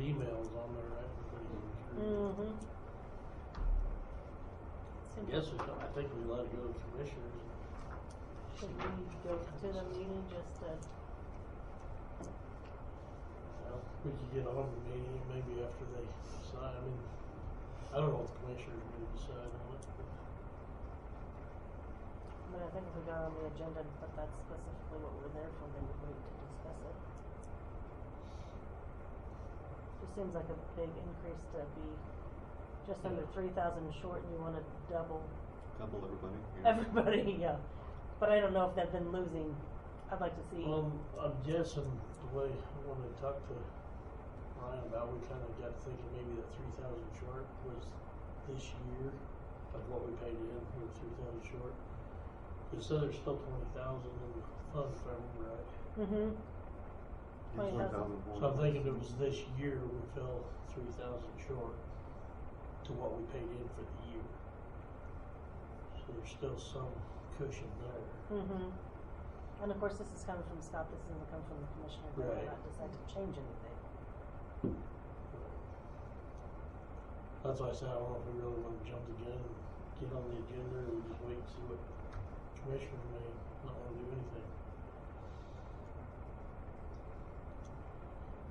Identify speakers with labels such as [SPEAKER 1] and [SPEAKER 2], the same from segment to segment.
[SPEAKER 1] emails on there, right?
[SPEAKER 2] Mm-hmm.
[SPEAKER 1] I guess it's, I think we let it go to commissioners.
[SPEAKER 2] Should we go to the meeting just to,
[SPEAKER 1] Well, We could get on the meeting maybe after they decide, I mean, I don't know if commissioners may decide on it.
[SPEAKER 2] I mean, I think if we got on the agenda and put that specifically what we're there for, then we'd wait to discuss it. Just seems like a big increase to be just under
[SPEAKER 1] Yeah.
[SPEAKER 2] three thousand short and you wanna double
[SPEAKER 3] Double everybody. yeah.
[SPEAKER 2] everybody, yeah. But I don't know if they've been losing, I'd like to see.
[SPEAKER 1] Um, I'm guessing the way when I talked to Ryan about, we kinda got thinking maybe that three thousand short was this year of what we paid in, we were three thousand short. It said there's still twenty thousand in the fund, if I remember right.
[SPEAKER 2] Mm-hmm, 20,000.
[SPEAKER 3] And 20,000 for
[SPEAKER 1] So I'm
[SPEAKER 3] one.
[SPEAKER 1] thinking it was this year we fell three thousand short to what we paid in for the year. So there's still some cushion there.
[SPEAKER 2] mm-hmm. And of course, this is coming from Scott, this isn't coming from the commissioner, they
[SPEAKER 1] Right.
[SPEAKER 2] might not decide to change anything.
[SPEAKER 1] That's why I said I don't know if we really wanna jump the gun and get on the agenda or just wait and see what commissioners may not wanna do anything.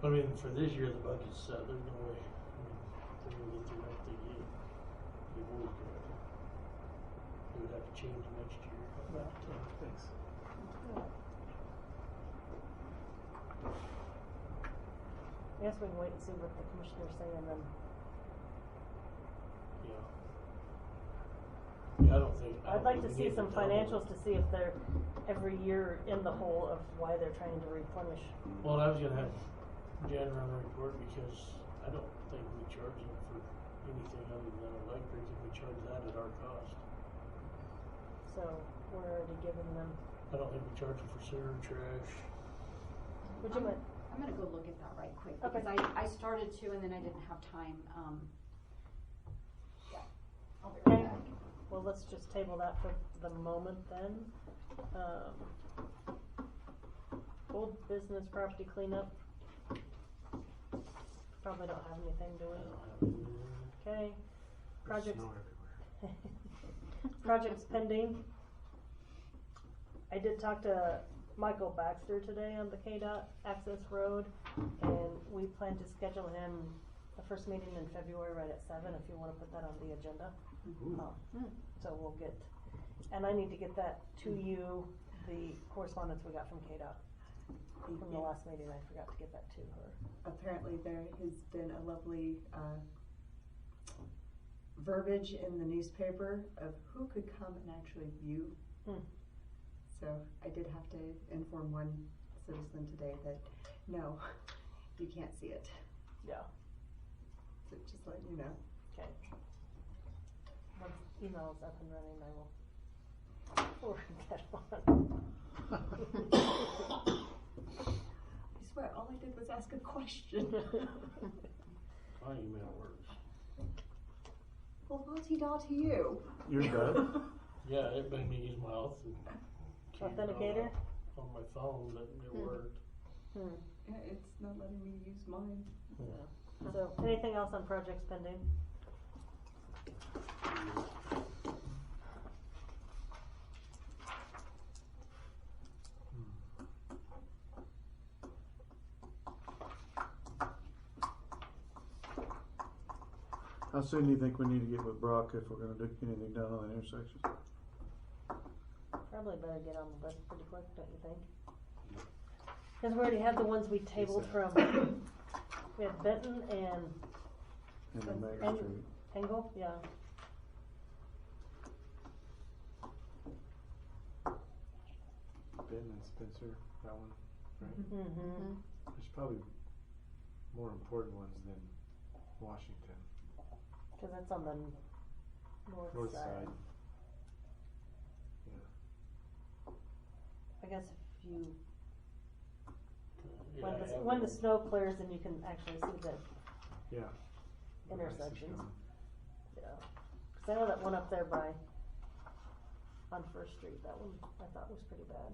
[SPEAKER 1] I mean, for this year, the budget's set, there's no way, I mean, they're gonna get through that thing yet. They would, they would have to change next year.
[SPEAKER 2] Yeah.
[SPEAKER 1] Thanks.
[SPEAKER 2] I guess we can wait and see what the commissioners say and then,
[SPEAKER 1] Yeah. Yeah, I don't think.
[SPEAKER 2] I'd
[SPEAKER 1] I don't
[SPEAKER 2] like
[SPEAKER 1] think
[SPEAKER 2] to
[SPEAKER 1] we
[SPEAKER 2] see
[SPEAKER 1] need
[SPEAKER 2] some
[SPEAKER 1] double.
[SPEAKER 2] financials to see if they're every year in the hole of why they're trying to replenish.
[SPEAKER 1] Well, I was gonna have Jen run a report because I don't think we charge them for anything other than electric, and we charge that at our cost.
[SPEAKER 2] So we're already giving them,
[SPEAKER 1] I don't think we charge them for sewer and trash.
[SPEAKER 2] would you
[SPEAKER 4] I'm-
[SPEAKER 2] mind,
[SPEAKER 4] I'm gonna go look at that right quick,
[SPEAKER 2] Okay.
[SPEAKER 4] because I, I started to and then I didn't have time, um. yeah, I'll be right
[SPEAKER 2] Okay.
[SPEAKER 4] back.
[SPEAKER 2] well, let's just table that for the moment then. Um, old business property cleanup. Probably don't have anything, do we?
[SPEAKER 1] I don't have any of that.
[SPEAKER 2] Okay, projects.
[SPEAKER 3] Snow everywhere.
[SPEAKER 2] Projects pending. I did talk to Michael Baxter today on the KDOT access road, and we plan to schedule him the first meeting in February right at seven, if you wanna put that on the agenda. Um,
[SPEAKER 4] Hmm.
[SPEAKER 2] So we'll get, and I need to get that to you, the correspondence we got from KDOT from the last meeting, I forgot to get that to her.
[SPEAKER 5] apparently there has been a lovely uh, verbiage in the newspaper of who could come and actually view.
[SPEAKER 2] Hmm.
[SPEAKER 5] So I did have to inform one citizen today that, no, you can't see it.
[SPEAKER 2] Yeah.
[SPEAKER 5] So just letting you know.
[SPEAKER 2] Okay. Once email's up and running, I will forward that on.
[SPEAKER 5] I swear, all I did was ask a question.
[SPEAKER 1] My email works.
[SPEAKER 5] well, naughty da to you.
[SPEAKER 3] You're good.
[SPEAKER 1] Yeah, it made me use my auth. and key and all
[SPEAKER 2] Authenticator?
[SPEAKER 1] that On my phone, but it
[SPEAKER 4] Hmm.
[SPEAKER 1] worked.
[SPEAKER 2] Hmm,
[SPEAKER 5] Yeah, it's not letting me use mine.
[SPEAKER 2] yeah. So, anything else on projects pending?
[SPEAKER 6] How soon do you think we need to get with Brock if we're gonna do anything down on that intersection?
[SPEAKER 2] Probably better get on the list pretty quick, don't you think? Cause we already had the ones we tabled from, we had Benton and
[SPEAKER 6] And then Main
[SPEAKER 2] And-
[SPEAKER 6] Street?
[SPEAKER 2] Engel, yeah.
[SPEAKER 3] ben and Spencer, that one.
[SPEAKER 2] Mm-hmm.
[SPEAKER 3] There's probably more important ones than Washington.
[SPEAKER 2] Cause that's on the north
[SPEAKER 3] North
[SPEAKER 2] side.
[SPEAKER 3] side. Yeah.
[SPEAKER 2] I guess if you
[SPEAKER 1] Yeah,
[SPEAKER 2] When
[SPEAKER 1] I
[SPEAKER 2] the,
[SPEAKER 1] have
[SPEAKER 2] when the
[SPEAKER 1] it.
[SPEAKER 2] snow clears and you can actually see the,
[SPEAKER 3] Yeah. The rest is
[SPEAKER 2] Intersections.
[SPEAKER 3] gone.
[SPEAKER 2] yeah. 'Cause I know that one up there by, on First Street, that one I thought was pretty bad.